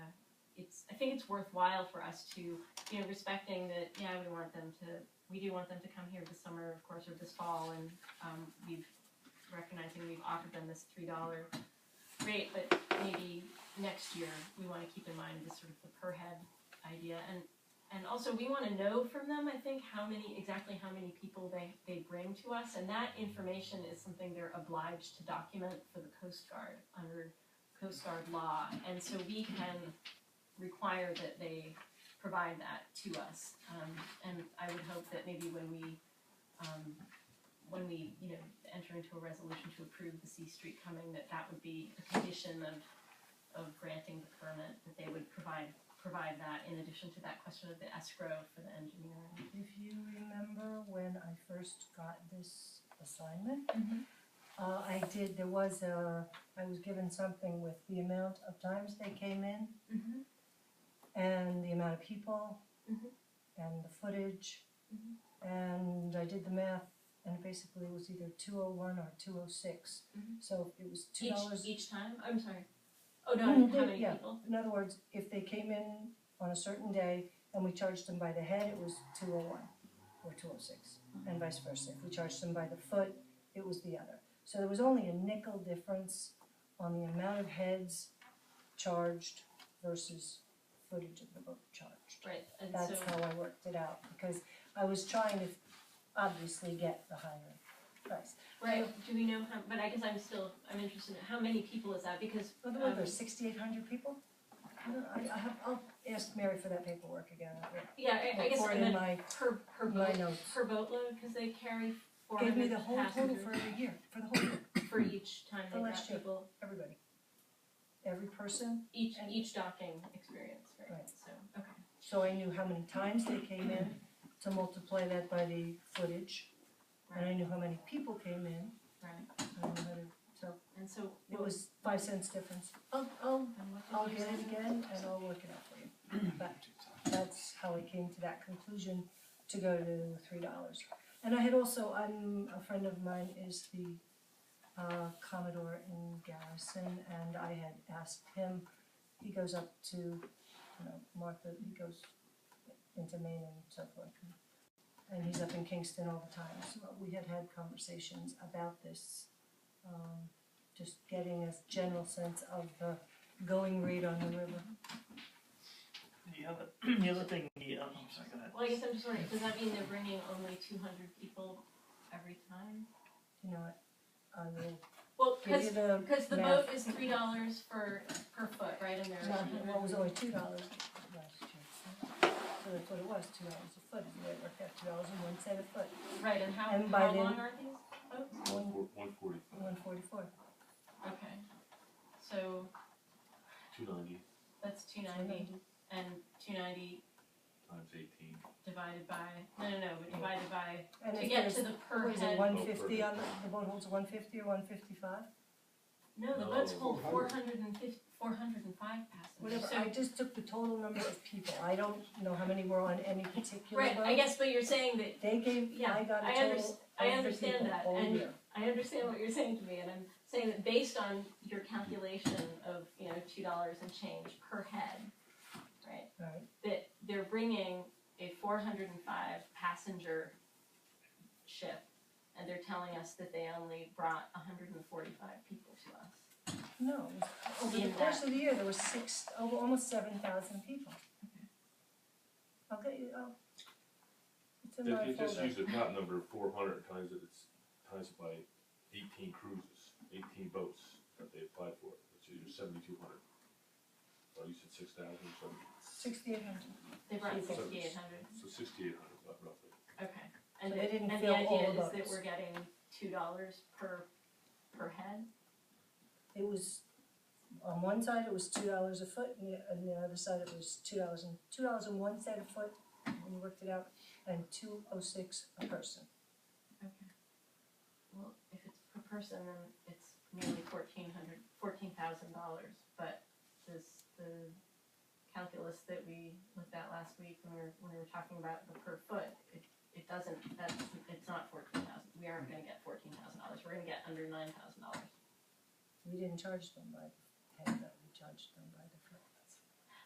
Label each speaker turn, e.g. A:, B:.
A: worthwhile for us to, you know, respecting that, yeah, we want them to, we do want them to come here this summer, of course, or this fall, and, um, we've recognizing we've offered them this three dollar rate, but maybe next year, we wanna keep in mind this sort of the per head idea, and, and also, we wanna know from them, I think, how many, exactly how many people they, they bring to us, and that information is something they're obliged to document for the Coast Guard under Coast Guard law, and so we can require that they provide that to us. Um, and I would hope that maybe when we, um, when we, you know, enter into a resolution to approve the C Street coming, that that would be a condition of, of granting the permit, that they would provide, provide that in addition to that question of the escrow for the engineering.
B: If you remember when I first got this assignment,
A: Mhm.
B: uh, I did, there was a, I was given something with the amount of times they came in
A: Mm-hmm.
B: and the amount of people
A: Mhm.
B: and the footage.
A: Mhm.
B: And I did the math and basically it was either two oh one or two oh six.
A: Mhm.
B: So it was two
A: Each,
B: dollars.
A: each time, I'm sorry. Oh, no,
B: Mm,
A: how
B: they-
A: many
B: yeah.
A: people?
B: In other words, if they came in on a certain day and we charged them by the head, it was two oh one or two oh six, and vice versa. If we charged them by the foot, it was the other. So there was only a nickel difference on the amount of heads charged versus footage of the book charged.
A: Right, and so,
B: That's how I worked it out, because I was trying to obviously get the higher price.
A: right, do we know how, but I guess I'm still, I'm interested in how many people is that, because,
B: By the way,
A: um,
B: there's sixty-eight hundred people? I don't, I, I have, I'll ask Mary for that paperwork again. I'll-
A: yeah, I, I guess
B: Report
A: I
B: in
A: meant
B: my-
A: per, per boat.
B: my notes.
A: per boatload, cause they carry four
B: Gave me
A: hundred
B: the whole total
A: passengers
B: for every year, for the whole year,
A: for each time
B: For
A: they got
B: last year.
A: people,
B: everybody. Every person,
A: each,
B: And-
A: each docking experience, right,
B: Right.
A: so, okay.
B: so I knew how many times they came in to multiply that by the footage. And I knew how many people came in,
A: Right,
B: I knew how to, so
A: and so,
B: it
A: what-
B: was five cents difference.
A: Oh,
B: I'll, I'll,
A: and what did
B: I'll
A: you
B: get it
A: say?
B: again and I'll work it out for you. But that's how I came to that conclusion to go to three dollars. And I had also, I'm, a friend of mine is the uh, Commodore in Garrison, and I had asked him, he goes up to, you know, Martha, he goes into Maine and so forth. And he's up in Kingston all the time, so we had had conversations about this, um, just getting a general sense of the going rate on the river.
C: The other, the other thing, the, uh, I'm sorry, go ahead.
A: Well, I guess I'm just wondering, does that mean they're bringing only two hundred people every time?
B: You know, what? I will
A: Well,
B: give you
A: cause,
B: the
A: 'cause the boat
B: math.
A: is three dollars for, per foot, right, and there's.
B: No, well, it was only two dollars last year. So that's what it was, two dollars a foot, and it worked out two dollars and one cent a foot,
A: Right, and how,
B: And by
A: how
B: then-
A: long are these boats?
B: one,
D: One forty,
B: one forty-four.
A: Okay, so
D: two ninety
A: that's two ninety and two ninety
D: times eighteen.
A: divided by, no, no, no, but divided by,
B: And
A: to
B: if
A: get to
B: there's,
A: the Oh, per
B: what is it,
A: head.
B: one fifty on, the the boat holds one fifty or one fifty-five?
A: No, the boats
D: No.
A: hold four hundred and fif, four hundred and five passengers,
B: Whatever,
A: so.
B: I just took the total number of people, I don't know how many were on any particular boat.
A: Right, I guess, but you're saying that,
B: They gave,
A: Yeah,
B: I got
A: I
B: a
A: under-
B: total of
A: I
B: the
A: understand
B: people
A: that,
B: all
A: and-
B: year.
A: I understand what you're saying to me, and I'm saying that based on your calculation of, you know, two dollars and change per head, right?
B: Right,
A: That they're bringing a four hundred and five passenger ship, and they're telling us that they only brought hundred and forty-five people to us.
B: no, it was- over the
A: In
B: course
A: that-
B: of the year, there was six, over almost seven thousand people. Okay, oh. It's in my folder.
D: If you just use the top number, four hundred times it, it's times it by eighteen cruises, eighteen boats that they applied for, which is seventy-two hundred. Or you said six thousand, so,
B: Sixty-eight hundred.
A: They brought
D: So-
A: sixty-eight hundred.
D: so sixty-eight hundred roughly.
A: Okay, and the,
B: So they didn't
A: and
B: fill
A: the
B: all
A: idea
B: the
A: is that
B: boats.
A: we're getting two dollars per, per head?
B: It was, on one side it was two dollars a foot, and the, and the other side it was two dollars and, two dollars and one cent a foot, when you worked it out, and two oh six a person.
A: Okay. Well, if it's per person, then it's nearly fourteen hundred, fourteen thousand dollars, but this, the calculus that we looked at last week when we were, when we were talking about the per foot, it, it doesn't, that's, it's not fourteen thousand, we aren't gonna get fourteen thousand dollars, we're gonna get under nine thousand dollars.
B: We didn't charge them by the head, but we charged them by the